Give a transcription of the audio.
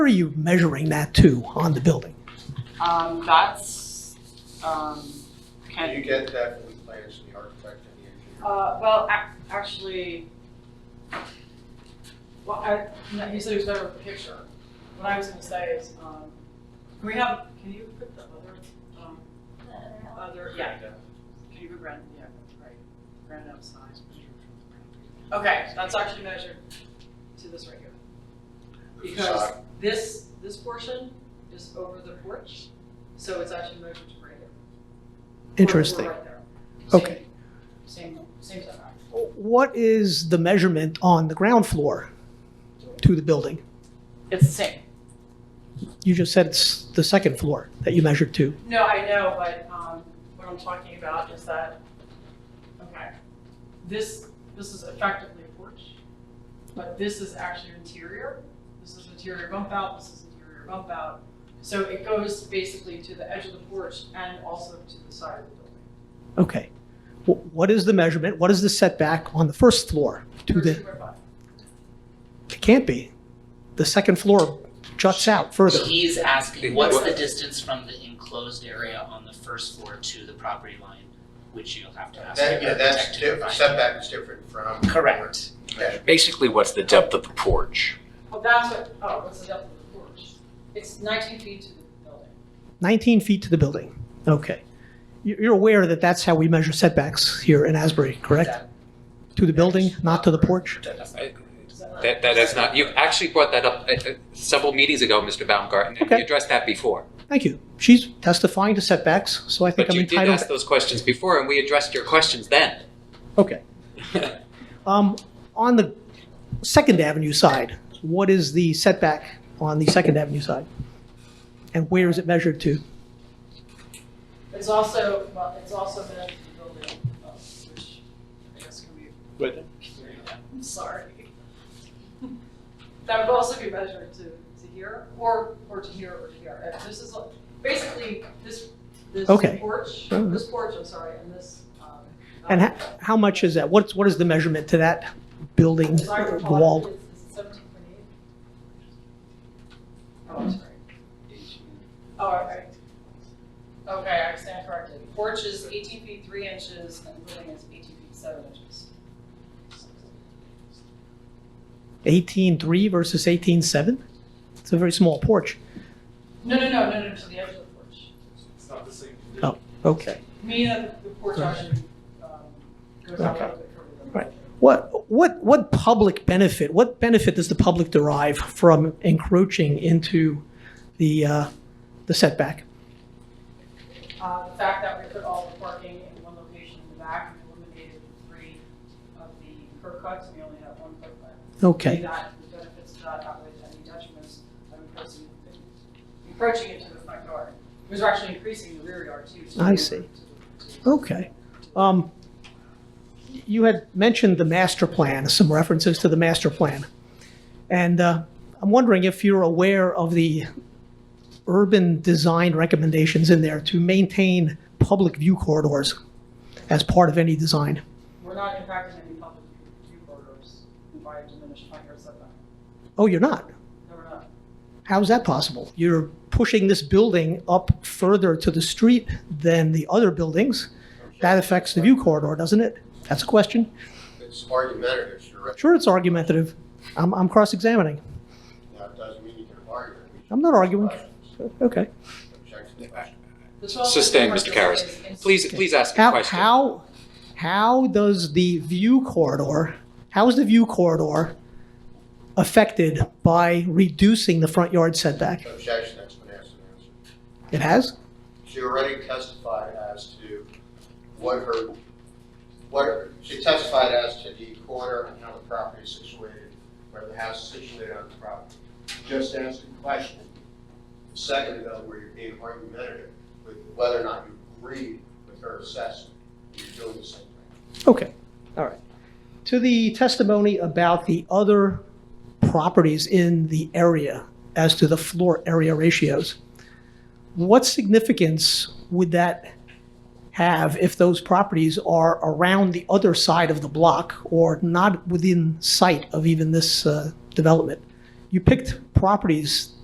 Where are you measuring that to on the building? Um, that's, um, Can you can, get that from the plans from the architect and the engineer? uh, well, ac- actually, well, I, no, he said he was better with a picture. What I was gonna say is, um, can we have, can you put the other, um, other, yeah, can you put Brandon, yeah, that's right, Brandon up size. Okay, that's actually measured to this right here. The Because facade, this, this portion is over the porch, so it's actually measured to right here. We're- we're Interesting. right there. Same- Okay. Same, same setback. What is the measurement on the ground floor to the building? It's the same. You just said it's the second floor that you measured to. No, I know, but, um, what I'm talking about is that, okay, this, this is effectively a porch, but this is actually interior. This is interior bump out, this is interior bump out. So it goes basically to the edge of the porch and also to the side of the building. Okay. Wh- What is the measurement? What is the setback on the first floor to Or the, two by five. it can't be. The second floor juts out further. He's asking, what's the distance from the enclosed area on the first floor to the property line, which you'll have to ask the that, yeah, architect that's to different, provide. setback is different from. Correct. measurement. Basically, what's the depth of the porch? Well, that's what, oh, what's the depth of the porch? It's nineteen feet to the building. 19 feet to the building. Okay. You- You're aware that that's how we measure setbacks here in Asbury, correct? To the building, not to the porch? Is that right? That, that is not, you actually brought that up uh, uh, several meetings ago, Mr. Baumgarten, and Okay. you addressed that before. Thank you. She's testifying to setbacks, so I think But I'm you did ask entitled. those questions before, and we addressed your questions then. Okay. Um, On the Second Avenue side, what is the setback on the Second Avenue side? And where is it measured to? It's also, well, it's also been to the building, uh, which I guess can be. I'm sorry. That would also be measured to, to here, or, or to here, or to here. Uh, This is, uh, basically, this, this Okay. porch, Oh. this porch, I'm sorry, and this, um. And ho- how much is that? What's, what is the measurement to that building As I recall, wall? it's- it's 17.8. Oh, I'm sorry. Oh, okay. Okay, I stand corrected. Porch is eighteen feet three inches and building is eighteen feet seven inches. 18.3 versus 18.7? It's a very small porch. No, no, no, no, no, to the edge of the porch. It's not the same. Oh, okay. Me and the porch actually, um, goes out a little bit further than. Right. What, what, what public benefit, what benefit does the public derive from encroaching into the, uh, the setback? Uh, the fact that we put all the parking in one location in the back, we eliminated three of the curb cuts, we only have one curb cut. Okay, That the benefits of that outweigh any detriments of encroaching, encroaching into the front yard. It was actually increasing the rear yard too. so I we were see. to the- to the- okay. Um, You had mentioned the master plan, some references to the master plan. And uh, I'm wondering if you're aware of the urban design recommendations in there to maintain public view corridors as part of any design. We're not impacting any public view corridors by a diminished front yard setback. Oh, you're not? No, we're not. How's that possible? You're pushing this building up further to the street than the other buildings. That affects the view corridor, doesn't it? That's a question. It's argumentative, you're right. Sure, it's argumentative. I'm, I'm cross-examining. Now, it doesn't mean you can argue. it. We should- I'm not arguing. Okay. Objection to the question. The 12 foot Sustained, front Mr. yard Karas. is- is- Please, please ask a How, question. how, how does the view corridor, how is the view corridor affected by reducing the front yard setback? Objection, that's been asked and answered. It has? She already testified as to what her, what, her- she testified as to the corner and how the property is situated, where the house is situated on the property. Just answered the question. Second, though, where you're being argumentative with whether or not you agree with her assessment, you're doing the same thing. Okay, all right. To the testimony about the other properties in the area as to the floor area ratios, what significance would that have if those properties are around the other side of the block or not within sight of even this uh, development? You picked properties